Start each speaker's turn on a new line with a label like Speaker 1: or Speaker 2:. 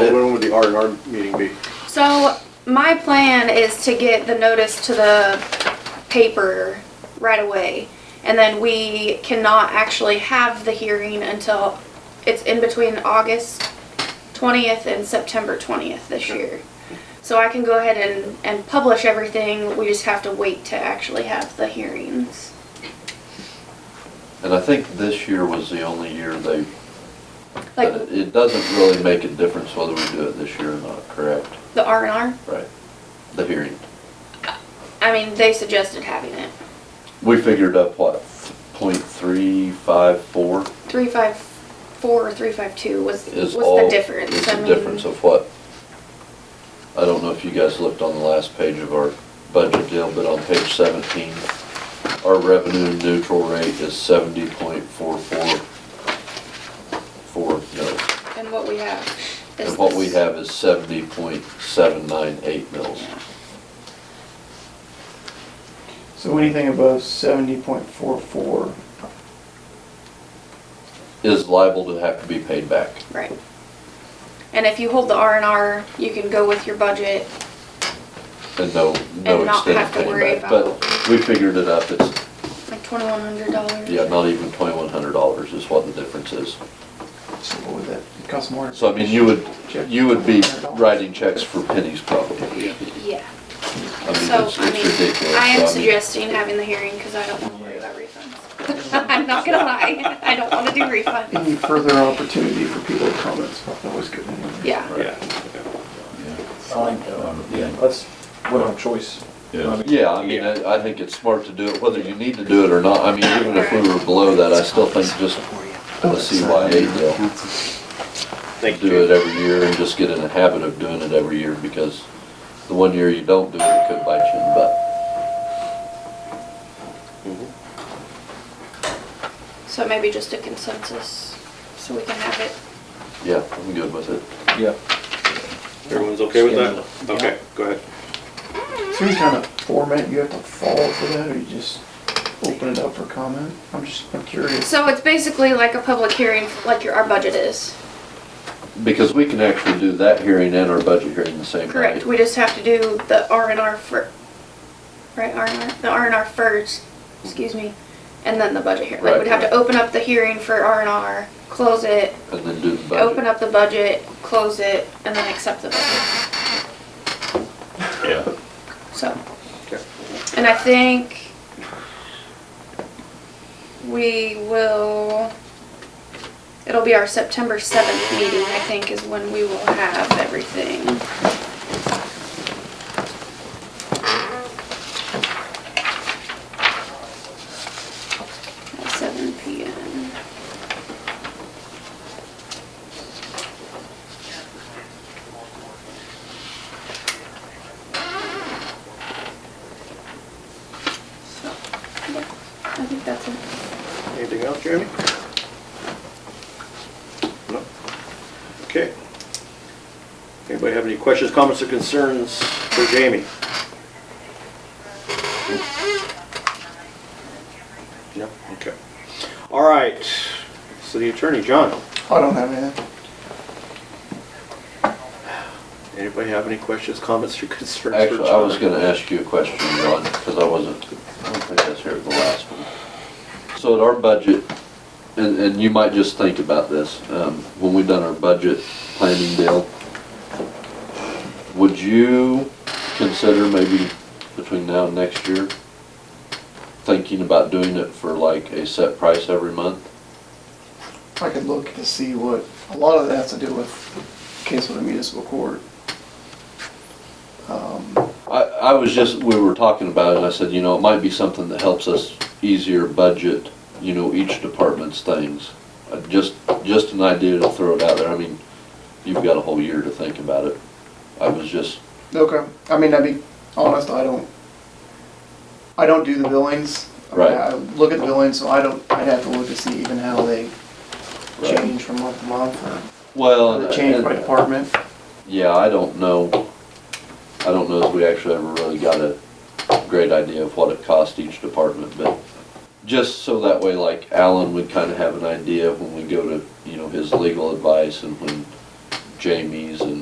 Speaker 1: would the R and R meeting be?
Speaker 2: So my plan is to get the notice to the paper right away. And then we cannot actually have the hearing until it's in between August 20th and September 20th this
Speaker 1: Okay.
Speaker 2: year. So I can go ahead and, and publish everything. We just have to wait to actually have the hearings.
Speaker 3: And I think this year was the only year they,
Speaker 2: Like
Speaker 3: but it doesn't really make a difference whether we do it this year or not, correct?
Speaker 2: the R and R.
Speaker 3: Right. The hearing.
Speaker 2: I mean, they suggested having it
Speaker 3: We figured up what, point three five four
Speaker 2: 354 or 352 was was
Speaker 3: is all.
Speaker 2: the difference.
Speaker 3: Is
Speaker 2: I
Speaker 3: the
Speaker 2: mean,
Speaker 3: difference of what? I don't know if you guys looked on the last page of our budget deal, but on page seventeen, our revenue neutral rate is seventy point four four four mils.
Speaker 2: And what we have. is
Speaker 3: And what we
Speaker 2: this.
Speaker 3: have is seventy point seven nine eight mils.
Speaker 4: So anything above seventy point four four,
Speaker 3: is liable to have to be paid back.
Speaker 2: Right. And if you hold the R and R, you can go with your budget.
Speaker 3: And no, no
Speaker 2: And not
Speaker 3: extended
Speaker 2: have to worry
Speaker 3: paying back. But we figured it up, it's,
Speaker 2: Like twenty-one hundred dollars.
Speaker 3: yeah, not even twenty-one hundred dollars is what the difference is.
Speaker 4: so what would that, it costs more?
Speaker 3: So I mean, you would, you would be writing checks for pennies probably. I mean,
Speaker 2: Yeah. So,
Speaker 3: it's
Speaker 2: I
Speaker 3: it's ridiculous.
Speaker 2: mean, I am
Speaker 3: So, mean,
Speaker 2: suggesting having the hearing because I don't want to worry about refunds. I'm not gonna lie, I don't want to do refunds.
Speaker 4: Any further opportunity for people to comment, so that was good. anyway.
Speaker 2: Yeah.
Speaker 1: Yeah.
Speaker 5: That's, we don't have choice.
Speaker 6: Yeah.
Speaker 3: Yeah, I mean, I I think it's smart to do it, whether you need to do it or not. I mean, even if we were below that, I still think just the CYA deal.
Speaker 1: Thank
Speaker 3: do it
Speaker 1: you.
Speaker 3: every year and just get in the habit of doing it every year because the one year you don't do it, it could bite you in the butt.
Speaker 2: So maybe just a consensus, so we can have it.
Speaker 3: Yeah, I'm good with it.
Speaker 5: Yeah.
Speaker 1: Everyone's okay with that? Okay, go ahead.
Speaker 4: Is there any kind of format you have to follow for that, or you just open it up for comment? I'm just, I'm curious.
Speaker 2: So it's basically like a public hearing, like your, our budget is.
Speaker 3: Because we can actually do that hearing and our budget hearing the same night.
Speaker 2: Correct, we just have to do the R and R fir, right, R and R, the R and R first, excuse me, and then the budget hearing. Like,
Speaker 3: Right,
Speaker 2: we'd have to
Speaker 3: right.
Speaker 2: open up the hearing for R and R, close it,
Speaker 3: And then do the
Speaker 2: open
Speaker 3: budget.
Speaker 2: up the budget, close it, and then accept the budget,
Speaker 6: Yeah.
Speaker 2: so.
Speaker 1: Okay.
Speaker 2: And I think we will, it'll be our September seventh meeting, I think, is when we will have everything. At seven P M. So, yeah, I think that's it.
Speaker 1: Anything else, Jeremy? No? Okay. Anybody have any questions, comments, or concerns for Jamie? No? Okay. All right, city attorney, John,
Speaker 4: I don't have any.
Speaker 1: anybody have any questions, comments, or concerns for John?
Speaker 3: Actually, I was gonna ask you a question, Ron, because I wasn't, I don't think I was here at the last one. So at our budget, and, and you might just think about this, um, when we done our budget planning deal, would you consider maybe between now and next year, thinking about doing it for like a set price every month?
Speaker 4: I could look to see what, a lot of that has to do with case with the municipal court. Um,
Speaker 3: I, I was just, we were talking about it, and I said, you know, it might be something that helps us easier budget, you know, each department's things. Uh, Just, just an idea to throw it out there, I mean, you've got a whole year to think about it. I was just,
Speaker 4: Okay, I mean, I'd be honest, I don't, I don't do the billings. I mean,
Speaker 3: Right.
Speaker 4: I look at the billings, so I don't, I'd have to look to see even how they
Speaker 3: Right.
Speaker 4: change from month to month,
Speaker 3: well,
Speaker 4: or
Speaker 3: and-
Speaker 4: they change by
Speaker 3: and-
Speaker 4: department.
Speaker 3: yeah, I don't know, I don't know if we actually ever really got a great idea of what it cost each department, but just so that way, like Alan would kind of have an idea when we go to, you know, his legal advice and when Jamie's and